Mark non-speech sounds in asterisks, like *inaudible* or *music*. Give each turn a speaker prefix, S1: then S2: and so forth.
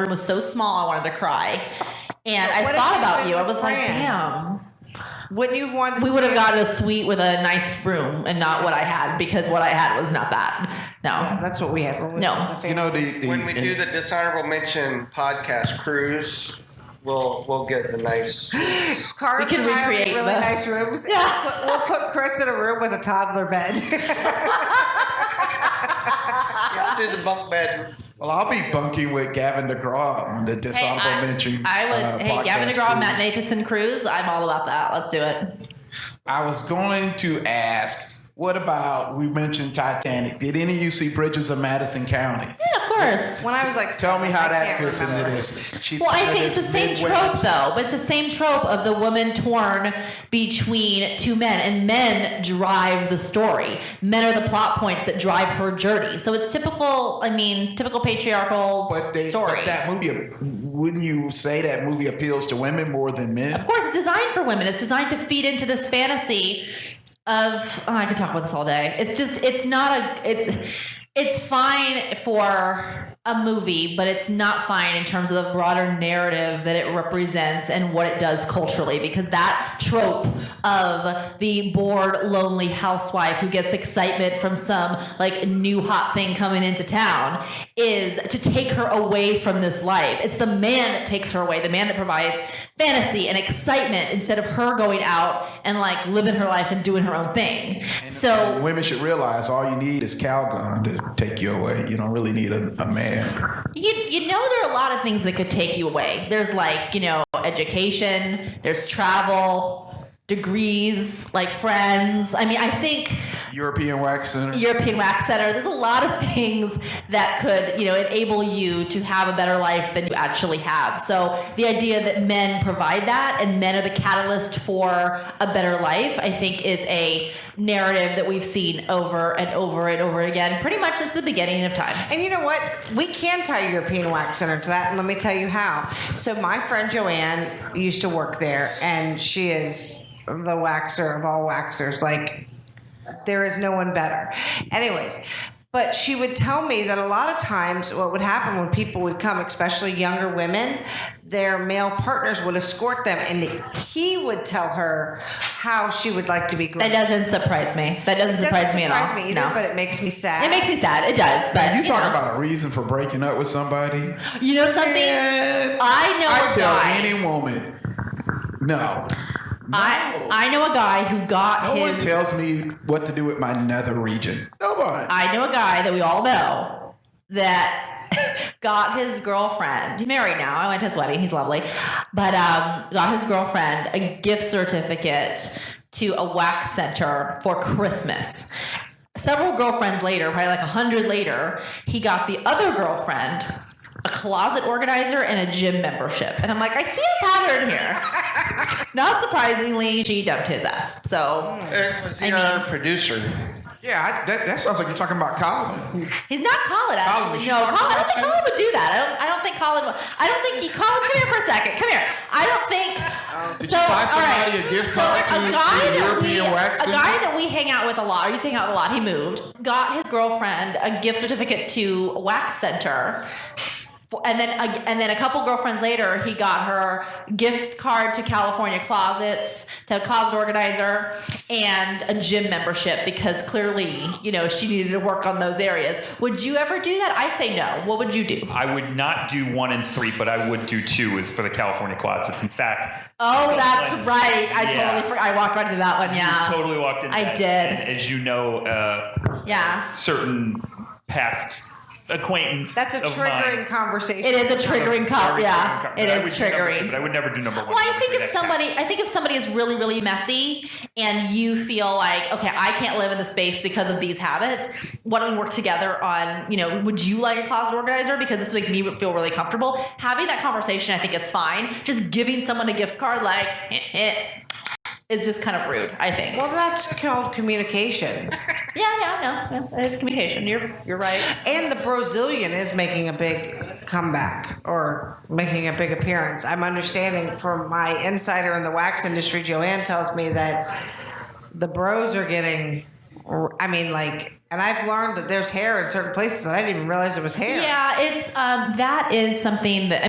S1: room was so small, I wanted to cry. And
S2: But
S1: I
S2: what if
S1: thought
S2: you
S1: about
S2: went
S1: you. I
S2: with
S1: was like,
S2: Fran?
S1: damn.
S2: Wouldn't you have wanted to
S1: We would have
S2: stay-
S1: gotten a suite with a nice room and not what I
S2: Yes.
S1: had because what I had was not that. No.
S2: Yeah, that's what we had. when we
S1: No.
S2: was a family.
S3: You know the, the
S4: When we do the dishonorable mention podcast cruise, we'll we'll get the
S1: *laughs*
S4: nice.
S2: Carl
S1: We can
S2: and I have
S1: recreate
S2: really
S1: the- *laughs*
S2: nice rooms.
S1: Yeah.
S2: We'll- We'll put Chris in a room with a toddler bed. *laughs*
S4: Yeah, I'll do the bunk bed.
S3: well, I'll be bunking with Gavin DeGraw on the
S1: Hey,
S3: dishonorable
S1: I,
S3: mention.
S1: I would.
S3: uh,
S1: hey, Gavin
S3: podcast
S1: DeGraw,
S3: cruise.
S1: Matt Nathanson, Cruz. I'm all about that. Let's do it.
S3: I was going to ask, what about we mentioned Titanic? Did any of you see Bridges of Madison County?
S1: Yeah, of course.
S2: when I was like,
S3: Tell me
S2: seven,
S3: how
S2: I
S3: that
S2: can't
S3: fits
S2: remember.
S3: into this. She's
S1: Well, I
S3: kind of
S1: think it's the
S3: this
S1: same trope
S3: Midwest-
S1: though, but it's the same trope of the woman torn between two men, and men drive the story. Men are the plot points that drive her journey. So it's typical. I mean, typical patriarchal
S3: But, they,
S1: story.
S3: but that movie, wouldn't you say that movie appeals to women more than
S1: of
S3: men?
S1: course, it's designed for women. It's designed to feed into this fantasy of oh, I could talk about this all day. It's just it's not a it's it's fine for a movie, but it's not fine in terms of the broader narrative that it represents and what it does culturally because that trope of the bored lonely housewife who gets excitement from some like new hot thing coming into town is to take her away from this life. It's the man that takes her away, the man that provides fantasy and excitement instead of her going out and like living her life and doing her own thing. So
S3: women should realize all you need is Calgon to take you away. You don't really need a, a man.
S1: you you know there are a lot of things that could take you away. There's like, you know, education, there's travel, degrees, like friends. I mean, I think
S3: European Wax Center.
S1: European Wax Center. There's a lot of *laughs* things that could, you know, enable you to have a better life than you actually have. So the idea that men provide that and men are the catalyst for a better life, I think, is a narrative that we've seen over and over and over again, pretty much since the beginning of time.
S2: And you know what? We can tie European Wax Center to that, and let me tell you how. So my friend Joanne used to work there, and she is the waxer of all waxers. Like there is no one better. Anyways, but she would tell me that a lot of times what would happen when people would come, especially younger women, their male partners would escort them, and he would tell her how she would like to be
S1: That
S2: groomed.
S1: doesn't surprise me. That doesn't,
S2: It doesn't
S1: surprise, me at all.
S2: surprise me either,
S1: no.
S2: but it makes me sad.
S1: it makes me sad. It does, but
S3: you talk
S1: know.
S3: about a reason for breaking up with somebody.
S1: You know something?
S3: Man,
S1: I know
S3: I tell
S1: why.
S3: any woman, no.
S1: I I know a guy who got
S3: No one
S1: his
S3: tells me what to do with my nether region. Nobody.
S1: I know a guy that we all know that *laughs* got his girlfriend. He's married now. I went to his wedding. He's lovely, but um, got his girlfriend a gift certificate to a wax center for Christmas. Several girlfriends later, probably like a hundred later, he got the other girlfriend a closet organizer and a gym membership. And I'm like, I see a pattern here. Not surprisingly, she dumped his ass. So
S4: It Uh, was
S1: I
S4: the our
S1: mean-
S4: producer.
S3: yeah, I, that, that sounds like you're talking about Colin.
S1: He's not Colin, actually.
S3: Colin,
S1: no, Colin, I don't think Colin would do that. I don't. I don't think Colin. Would, I don't think he. Colin, come here for a second. Come here. I don't think.
S3: Did
S1: so,
S3: you buy
S1: all right.
S3: somebody a gift
S1: so
S3: card to-
S1: a
S3: to
S1: guy
S3: the
S1: that we,
S3: European wax
S1: a
S3: center?
S1: guy that we hang out with a lot. Or used to hang out with a lot. He moved. Got his girlfriend a gift certificate to a wax center. For- And then, a- and then a couple girlfriends later, he got her gift card to California Closets, to a closet organizer, and a gym membership because clearly, you know, she needed to work on those areas. Would you ever do that? I say no. What would you do?
S5: I would not do one and three, but I would do two. Is for the California closets. In fact,
S1: Oh,
S5: so,
S1: that's
S5: like,
S1: right. I
S5: Yeah.
S1: totally, for- I walked right into that one. Yeah,
S5: you totally walked in.
S1: I
S5: that.
S1: did.
S5: And as you know, uh,
S1: yeah.
S5: certain past acquaintance.
S2: That's a
S5: of mine-
S2: triggering conversation.
S1: It is a triggering call.
S5: Very
S1: Yeah,
S5: triggering co-
S1: it
S5: but I
S1: is
S5: would do number two,
S1: triggering.
S5: but I would never do number one.
S1: Well, I
S5: number
S1: think
S5: three,
S1: if
S5: that's
S1: somebody, I think if somebody is really, really messy, and you feel like, okay, I can't live in the space because of these habits. Why don't we work together on, you know, would you like a closet organizer? Because this would make me feel really comfortable. Having that conversation, I think it's fine. Just giving someone a gift card, like, eh, eh, is just kind of rude. I think.
S2: Well, that's called communication.
S1: yeah, yeah, no, no, it's communication. You're, you're right.
S2: And the Brazilian is making a big comeback or making a big appearance. I'm understanding from my insider in the wax industry, Joanne tells me that the bros are getting, I mean, like And I've learned that there's hair in certain places that I didn't even realize it was hair.
S1: Yeah, it's um, that is something that